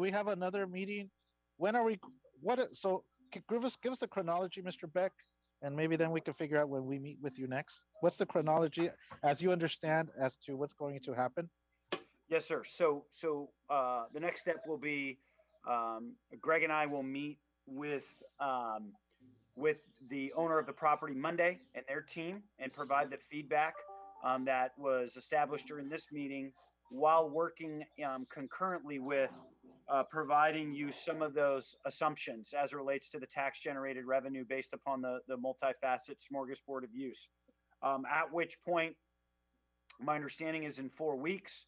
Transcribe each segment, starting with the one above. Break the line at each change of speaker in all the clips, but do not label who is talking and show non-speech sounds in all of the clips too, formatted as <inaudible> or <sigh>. we have another meeting? When are we, what, i- so g- give us, give us the chronology, Mr. Beck, and maybe then we can figure out when we meet with you next. What's the chronology, as you understand, as to what's going to happen?
Yes, sir. So, so, uh, the next step will be, um, Greg and I will meet with, um, with the owner of the property Monday and their team and provide the feedback, um, that was established during this meeting while working, um, concurrently with, uh, providing you some of those assumptions as it relates to the tax generated revenue based upon the, the multifaceted smorgasbord of use. Um, at which point, my understanding is in four weeks,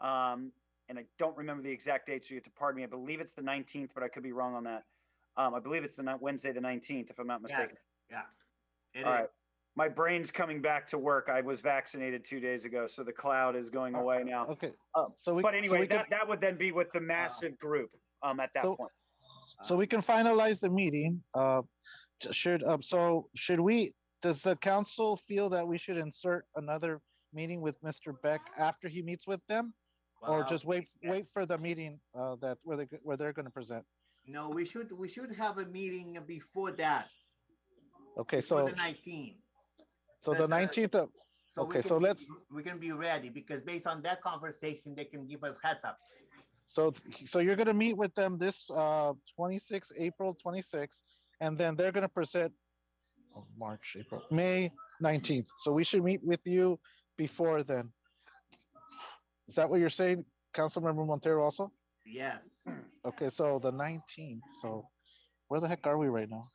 um, and I don't remember the exact date, so you have to pardon me. I believe it's the 19th, but I could be wrong on that. Um, I believe it's the ni- Wednesday, the 19th, if I'm not mistaken.
Yes, yeah. It
All right.
is.
Uh, My brain's coming back to work. I was vaccinated two days ago, so the cloud is going away now.
Okay,
Oh,
so we.
But
so
anyway,
we can-
that, that would then be with the massive group um, at that
So-
point.
So we can finalize the meeting. Uh, j- should, um, so should we, does the council feel that we should insert another meeting with Mr. Beck after he meets with them? Or
Well,
just wait,
yeah.
wait for the meeting, uh, that, where they, where they're gonna present?
No, we should, we should have a meeting before that,
Okay,
before
so,
the nineteen.
so
the-
the
the-
nineteenth of, Okay, so let's-
We can be ready because based on that conversation, they can give us heads up.
so, so you're gonna meet with them this, uh, twenty-six, April twenty-six, and then they're gonna present oh, March, April, May nineteenth. So we should meet with you before then. Is that what you're saying, Councilmember Montero also?
Yes.
Okay, so the nineteenth, so where the heck are we right now?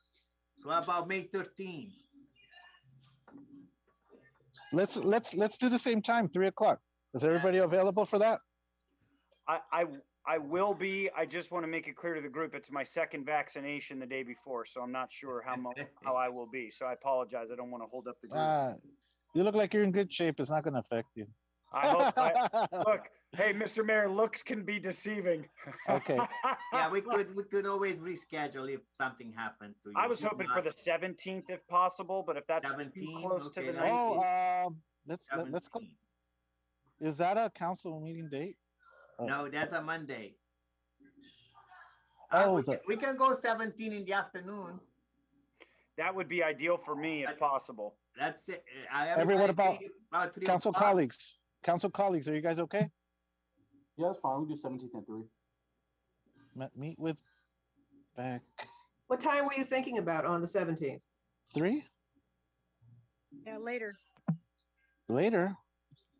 So how about May thirteen?
Let's, let's, let's do the same time, three o'clock. Is everybody available for that?
I, I, I will be, I just want to make it clear to the group, it's my second vaccination the day before, so I'm not sure how
<laughs>
mo- how I will be. So I apologize. I don't want to hold up the group.
Uh, you look like you're in good shape. It's not gonna affect you.
I hope, I,
<laughs>
look, hey, Mr. Mayor, looks can be deceiving. <laughs>
Okay.
Yeah, we could, we could always reschedule if something happened to you.
I was hoping for the seventeenth if possible, but if that's too
17,
close to
okay,
the
that's-
nineteenth,
Oh, um, let's, let- let's go.
17.
Is that a council meeting date?
No, that's a Monday. Uh,
Oh,
we
the-
can- We can go seventeen in the afternoon.
that would be ideal for me if possible.
That's it. I-
Everyone about-
everybody agree about three
Council
o'clock?
colleagues, council colleagues, are you guys okay?
Yeah, that's fine. We do seventeenth and three.
Me- Meet with back
What time were you thinking about on the seventeenth?
three
Yeah, later.
later?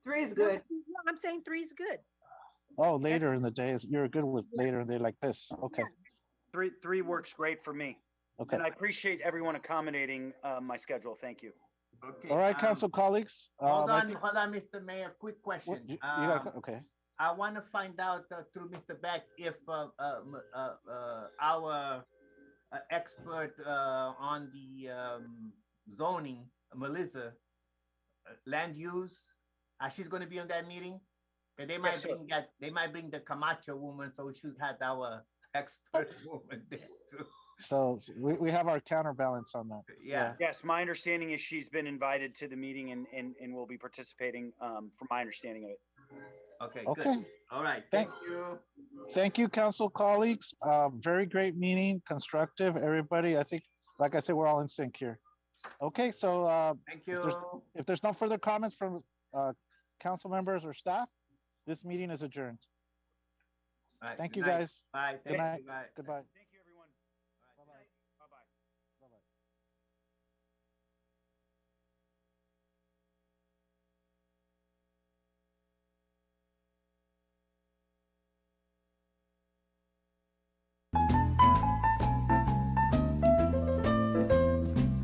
Three is
No,
good.
no, I'm saying three's good.
Oh, later in the day is, you're good with later in the day like this. Okay,
Three, three works great for me.
okay.
And I appreciate everyone accommodating, uh, my schedule. Thank you.
Okay,
All right,
um,
council colleagues. um,
Hold
I
on,
think-
hold on, Mr. Mayor, quick
what-
question.
you- you
Um,
gotta- Okay,
I want to find out uh, through Mr. Beck if uh, uh, m- uh, uh, our uh, expert uh, on the um, zoning, Melissa, uh, land use, uh, she's going to be on that meeting. 'Cause they might
sir.
bring that. They might bring the Camacho woman, so we should have our <laughs>
<laughs>
expert woman there too.
so s- we, we have our counterbalance on that.
Yeah.
Yes, my understanding is she's been invited to the meeting and, and, and will be participating, um, from my understanding of it.
Okay. Good.
Okay.
All right.
Thank-
Thank you.
Thank you, council colleagues. Uh, very great meeting, constructive, everybody. I think, like I said, we're all in sync here. Okay, so, uh,
Thank
there's-
you.
if there's no further comments from, uh, council members or staff, this meeting is adjourned.
All right,
Thank
good
you,
night.
guys.
Bye.
Good
Thank you.
night.
Bye.
Goodbye.
Thank you.